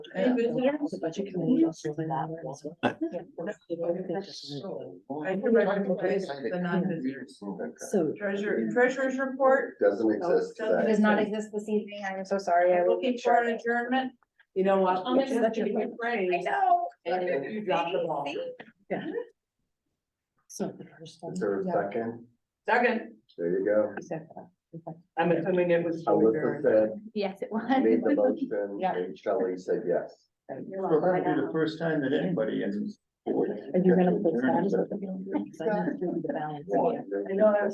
Any visitors? The budget committee also went out there as well. I can recognize the non-visitors. So Treasurer, treasurer's report, Doesn't exist Oh, today. Does not exist this evening. I'm so sorry. I will looking for an adjournment. you know what? I'll make You're such a sure- good brain. I know. And you dropped the ball. See? So the first one. Is there a yeah, second? Second, There you go. exactly. I'm assuming it was. Alyssa said, Yes, it made the was. motion, Yeah. and Shelley said yes. Well, that'll um, be the first time that anybody is. And you're gonna put that as what the. Because I didn't do the balance. One. I know, I was